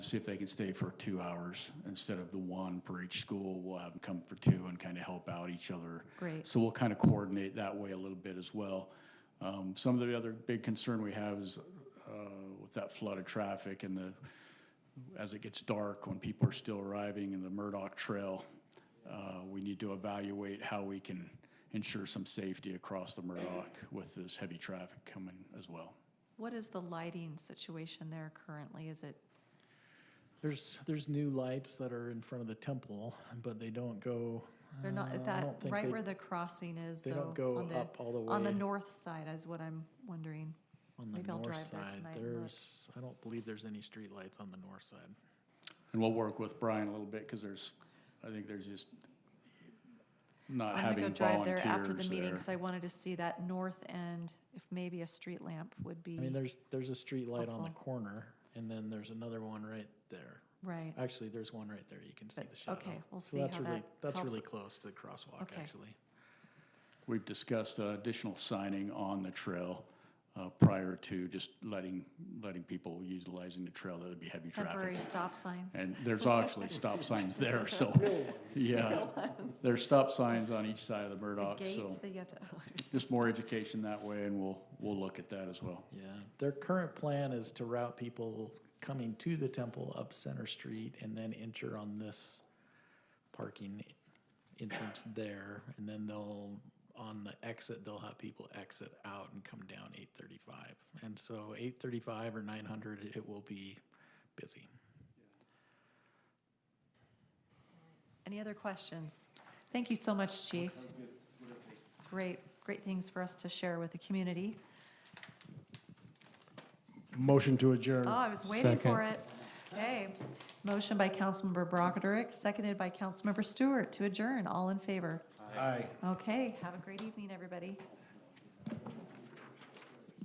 see if they can stay for two hours instead of the one for each school. We'll have them come for two and kind of help out each other. Great. So we'll kind of coordinate that way a little bit as well. Um, some of the other big concern we have is uh, with that flood of traffic and the, as it gets dark, when people are still arriving in the Murdoch Trail, uh, we need to evaluate how we can ensure some safety across the Murdoch with this heavy traffic coming as well. What is the lighting situation there currently? Is it, There's, there's new lights that are in front of the temple, but they don't go. they're uh, I not, that, don't think right they- where the crossing is They though? don't go on the- up all the way. On the north side is what I'm wondering. on the maybe I'll north drive there side. tonight and look. There's, I don't believe there's any streetlights on the north side. And we'll work with Brian a little bit because there's, I think there's just not I'm gonna go Uh, having drive there after the volunteers meeting there. because I wanted to see that north end, if maybe a street lamp would I mean, be, there's, there's a streetlight on Helpful. the corner, and then there's another one right there. right. Actually, there's one right there. You can see But- the shadow. okay, we'll So see that's how really- that That's helps. really close to the crosswalk, Okay. actually. We've discussed uh, additional signing on the trail uh, prior to just letting, letting people utilizing the trail. That would be heavy Temporary traffic. stop signs. And there's actually stop signs there, so, yeah. There's stop signs on each side of the The Murdoch, so gate that you have to, just more education that way and we'll, we'll look at that as well. Yeah, their current plan is to route people coming to the temple up Center Street and then enter on this parking entrance there, and then they'll, on the exit, they'll have people exit out and come down eight thirty-five. And so eight thirty-five or nine hundred, it will be busy. any other questions? Thank you so much, chief. Great, great things for us to share with the community. Motion to adjourn. Oh, I was waiting for it. Okay. Motion by Councilmember Broderick, seconded by Councilmember Stewart to adjourn. All in favor? Aye. Okay, have a great evening, everybody.